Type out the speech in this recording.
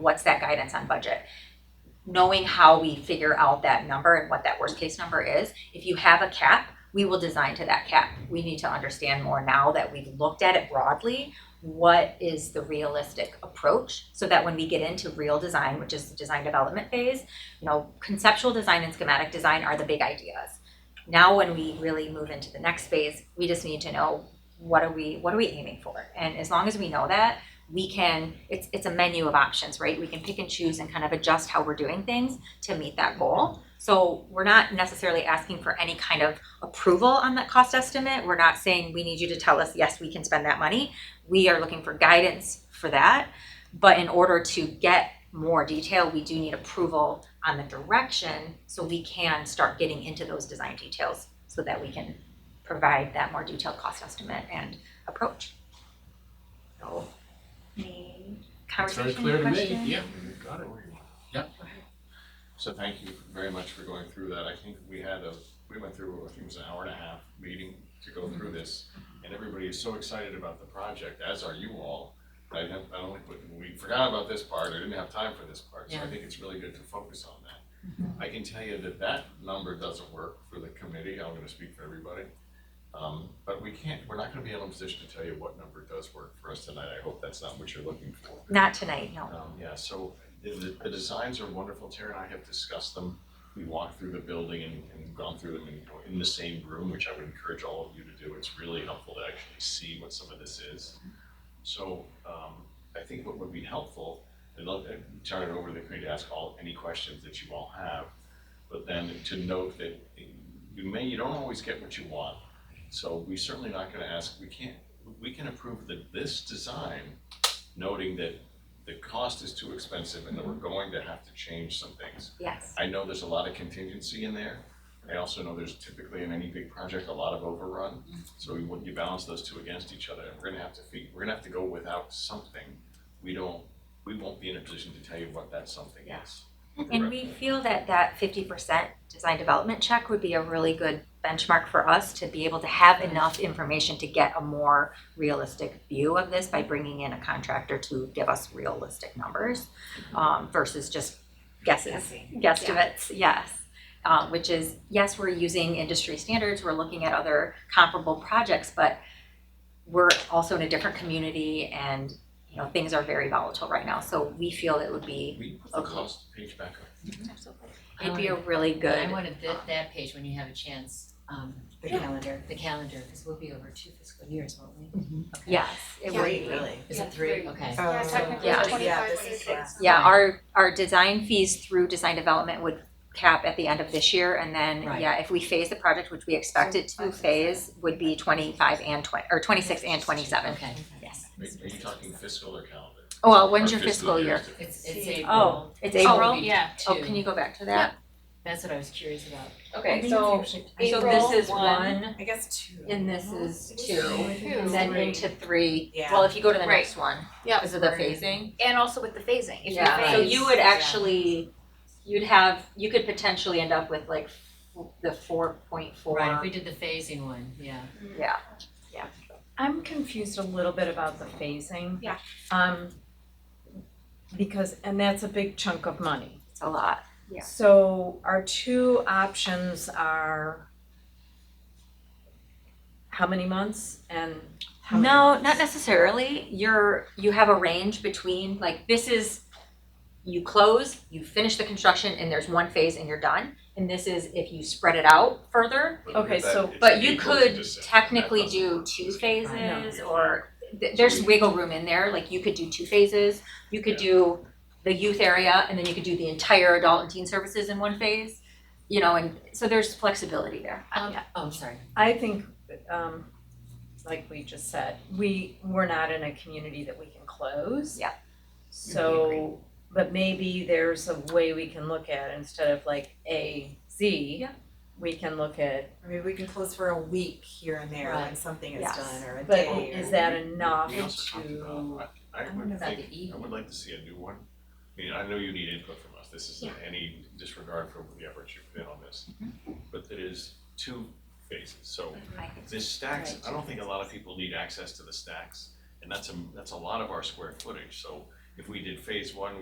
what's that guidance on budget? Knowing how we figure out that number and what that worst case number is, if you have a cap, we will design to that cap. We need to understand more now that we've looked at it broadly, what is the realistic approach? So that when we get into real design, which is the design development phase, you know, conceptual design and schematic design are the big ideas. Now when we really move into the next phase, we just need to know what are we, what are we aiming for? And as long as we know that, we can it's it's a menu of options right we can pick and choose and kind of adjust how we're doing things to meet that goal so we're not necessarily asking for any kind of approval on that cost estimate we're not saying we need you to tell us yes we can spend that money we are looking for guidance for that but in order to get more detail we do need approval on the direction so we can start getting into those design details so that we can provide that more detailed cost estimate and approach so any It's very conversation, clear to me, question? yeah, got it. So thank you very much for going through that. I think we had a, we went through, I think it was an hour and a half meeting to go through this. And everybody is so excited about the project, as are you all. I have, I don't, we forgot about this part, I didn't have time for this part, so I think it's really good to focus on that. I can tell you that that number doesn't work for the committee, I'm gonna speak for everybody. Um, but we can't, we're not gonna be in a position to tell you what number does work for us tonight. I hope that's not what you're looking for. Not tonight, no. Um, yeah, so the- the, the designs are wonderful, Tara and I have discussed them. We walked through the building and, and gone through them in, in the same room, which I would encourage all of you to do. It's really helpful to actually see what some of this is. So, um, I think what would be helpful, and I'll I'll turn it over to the committee to ask all, any questions that you all have. But then to note that you may, you don't always get what you want. So we certainly not gonna ask, we can't, we can approve the, this design, noting that the cost is too expensive and that we're going to have to change some things. Yes. I know there's a lot of contingency in there. I also know there's typically in any big project, a lot of overrun. So we, when you balance those two against each other, we're gonna have to feed, we're gonna have to go without something. We don't, we won't be in a position to tell you what that something Yeah. is. And we feel that that fifty percent design development check would be a really good benchmark for us to be able to have enough information to get a more realistic view of this by bringing in a contractor to give us realistic numbers um, versus just guesses, guesstimates, yes. Uh, which is, yes, we're using industry standards, we're looking at other comparable projects, but we're also in a different community and, you know, things are very volatile right now, so we feel it would be, We put the cost page back up. it'd be a Um, really good. Um, I wanted that, that page when you have a chance, um, the calendar, the calendar, because we'll be over two fiscal years, won't we? Yes, it Yeah. would. Wait, really? Is it Yeah, three? three. Okay. Yeah, technically Yeah. it's twenty-five, this but is- it's yeah. Yeah, our, our design fees through design development would cap at the end of this year, and then, Right. yeah, if we phase the project, which we expect it to phase, would be twenty-five and twenty, or twenty-six and twenty-seven, Okay. yes. Are are you talking fiscal or calendar? Oh, well, when's Our your fiscal year? is different. It's, it's April. Oh, it's So it'll April? be yeah. Oh, two. can you go back to that? That's what I was curious about. Okay, so, so April, this is one, I guess two. and this is two, Two. and Then then into three, Yeah. well, if you go to the Right. next one, Yeah. because of the phasing. And also with the phasing, if you Yeah, so phase- you would yeah. actually, you'd have, you could potentially end up with like f- the four point four. Right, if we did the phasing one, yeah. Yeah, I'm confused a little bit about the phasing. Yeah. Um, because, and that's a big chunk of money. it's a lot. Yeah. So our two options are how many months and how many? No, not necessarily. You're, you have a range between, like, this is, you close, you finish the construction, and there's one phase and you're done. And this is if you spread it out further, But look Okay, at that, so- it's but you April to could December. That technically doesn't do work. two I phases know. or, th- there's wiggle room in there, like, you could do two phases. You could do the youth area, and then you could do the entire adult and teen services in one phase, you know, and so there's flexibility there. Um, oh, I'm sorry. I think, um, like we just said, we, we're not in a community that we can close. Yeah. So, but maybe there's a way we can look at, instead of like A, Z, Yeah. we can look at, I mean, we can close for a week here and there when Right. something is Yes. done or a but day or. is that enough We also talked to? about, I, I I wonder would about think, the E. I would like to see a new one. I mean, I know you need input from us, this isn't any disregard for the effort you put in on this. But it is two phases, so I think this stacks, Right, I don't think a lot of people need access to the stacks. And that's a, that's a lot of our square footage, so if we did phase one